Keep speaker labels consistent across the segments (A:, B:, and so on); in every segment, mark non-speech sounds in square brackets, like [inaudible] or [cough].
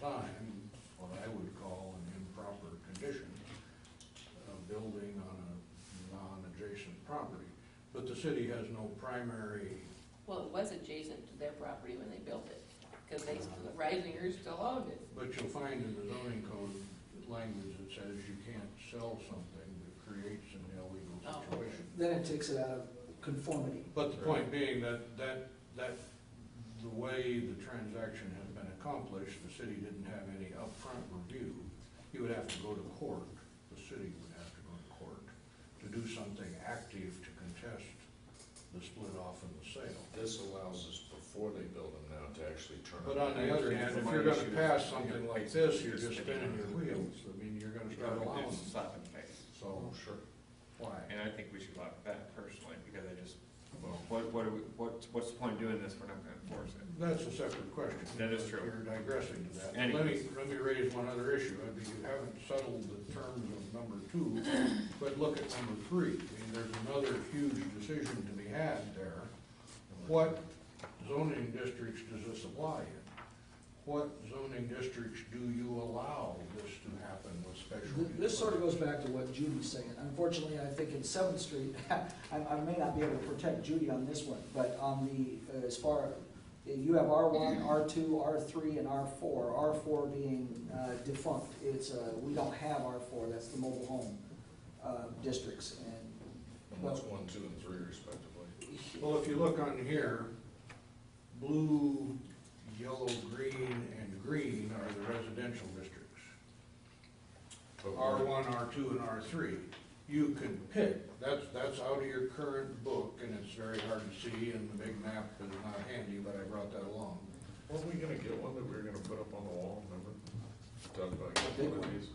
A: time, what I would call an improper condition, a building on a non-adjacent property. But the city has no primary,
B: Well, it was adjacent to their property when they built it, because they, the Reisingers still owned it.
A: but you'll find in the zoning code language that says you can't sell something that creates an illegal
B: Oh.
A: situation.
C: Then it takes it out of conformity.
A: But the point being that, that, that, the way the transaction has been accomplished, the city didn't have any upfront review. You would have to go to court, the city would have to go to court to do something active to contest the split off and the sale.
D: This allows us, before they build them now, to actually turn.
A: But on the other hand, if you're gonna pass something like this, you're just spinning your wheels. I mean, you're gonna start allowing,
E: It's
A: them.
E: slap in the face.
A: so
D: Sure.
A: why?
E: And I think we should lock that personally, because I just, well, what, what, are we- what, what's the point of doing this? We're not gonna enforce it.
A: That's a separate question.
E: That is true.
A: You're digressing to that. Let me,
E: Anyways.
A: let me raise one other issue. I mean, you haven't settled the terms of number two, but look at number three. I mean, there's another huge decision to be had there. What zoning districts does this apply in? What zoning districts do you allow this to happen with special?
C: Th- This sort of goes back to what Judy was saying. Unfortunately, I think in Seventh Street, [laughs] I, I may not be able to protect Judy on this one, but on the, uh, as far, you have R one, R two, R three, and R four. R four being uh, defunct, it's, uh, we don't have R four, that's the mobile home uh, districts. And,
D: And that's
C: well,
D: one, two, and three respectively.
A: Well, if you look on here, blue, yellow, green, and green are the residential districts.
D: But
A: R
D: we're-
A: one, R two, and R three. You can pick, that's, that's out of your current book, and it's very hard to see, and the big map is not handy, but I brought that along.
D: Weren't we gonna get one that we were gonna put up on the wall, remember? Talked about getting one of these.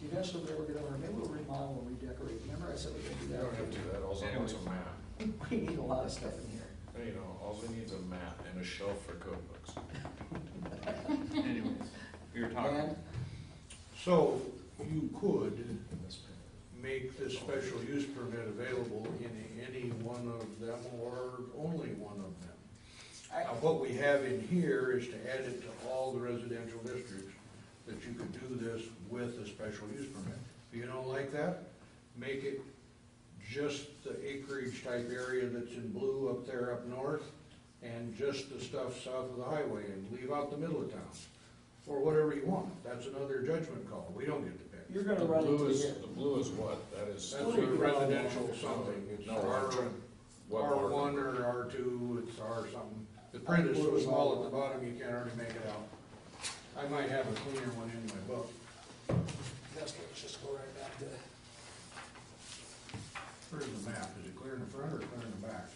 C: eventually we were gonna, maybe we'll remodel and redecorate. Remember I said we could do
D: You don't have to do that, also, it's a map.
C: that? [laughs] We need a lot of stuff in here.
D: You know, all we need is a map and a shelf for code books.
E: Anyways, we were talking,
C: And
A: So you could
D: In this pen.
A: make this special use permit available in any one of them or only one of them.
C: I,
A: Now, what we have in here is to add it to all the residential districts, that you could do this with a special use permit. If you don't like that, make it just the acreage type area that's in blue up there up north, and just the stuff south of the highway, and leave out the middle of town, or whatever you want. That's another judgment call, we don't get to pick.
C: you're gonna
D: The
C: run into
D: blue
C: here.
D: is, the blue is what? That is.
A: That's a residential something, it's
D: No,
A: R,
D: What
A: R
D: market?
A: one or R two, it's R something. The print is so small at the bottom, you can't hardly make it out. I might have a cleaner one in my book.
C: That's, let's just go right back to,
A: Where's the map? Is it clear in the front or clear in the back?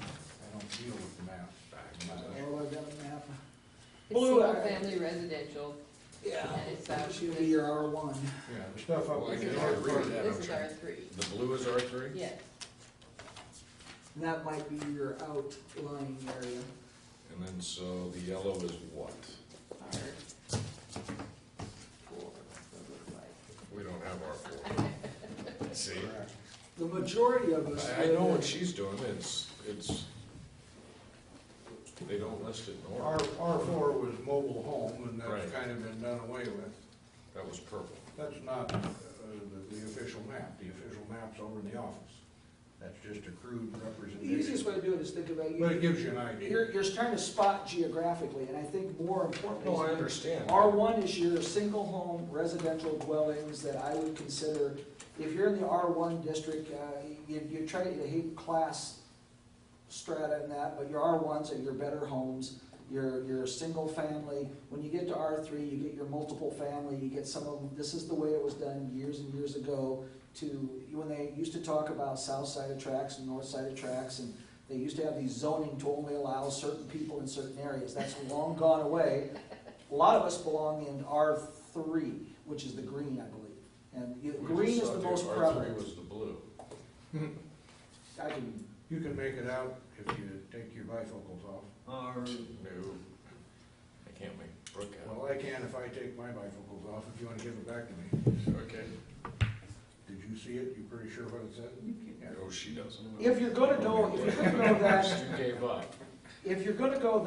A: I don't deal with the map.
C: oh, I've got a map.
B: It's
C: Blue eye.
B: single-family residential,
C: Yeah.
B: and it's, uh,
C: She'll be your R one.
A: Yeah, the stuff up
B: This
A: in
B: is
A: the
B: our,
A: R
D: can't read
B: three.
D: that,
B: this
D: I'm
B: is
D: sure.
B: our three,
D: The blue is R three?
B: yes.
C: That might be your outlying area.
D: And then, so the yellow is what?
B: Our four, what it looked like.
D: We don't have R four. See?
C: The majority of us.
D: I, I know what she's doing, it's, it's, they don't list it in
A: R,
D: order.
A: R four was mobile home, and that's
D: Right.
A: kind of been done away with.
D: That was purple.
A: That's not uh, the the official map. The official map's over in the office. That's just a crude
C: The
A: representation.
C: easiest way to do it is think about,
A: But it
C: you,
A: gives you an idea.
C: you're, you're trying to spot geographically, and I think more importantly.
D: No, I understand.
C: R one is your single home residential dwellings that I would consider, if you're in the R one district, uh, you, you try to, you hate class strata and that, but your R ones are your better homes, your, your single family. When you get to R three, you get your multiple family, you get some of them, this is the way it was done years and years ago to, when they used to talk about south side of tracks and north side of tracks, and they used to have these zoning to only allow certain people in certain areas. That's long gone away. A lot of us belong in R three, which is the green, I believe. And you-
D: We
C: green
D: just
C: is
D: saw
C: the
D: the
C: most
D: R three
C: prevalent.
D: was the blue.
C: I can,
A: You can make it out if you take your bifocals off.
E: or,
D: No, I can't make Brooke out.
A: Well, I can if I take my bifocals off, if you wanna give it back to me.
D: Okay.
A: Did you see it? You pretty sure what it said? Yeah.
D: No, Oh, she doesn't.
C: if you're gonna go, if you're gonna go that,
D: You gave up.
C: if you're gonna go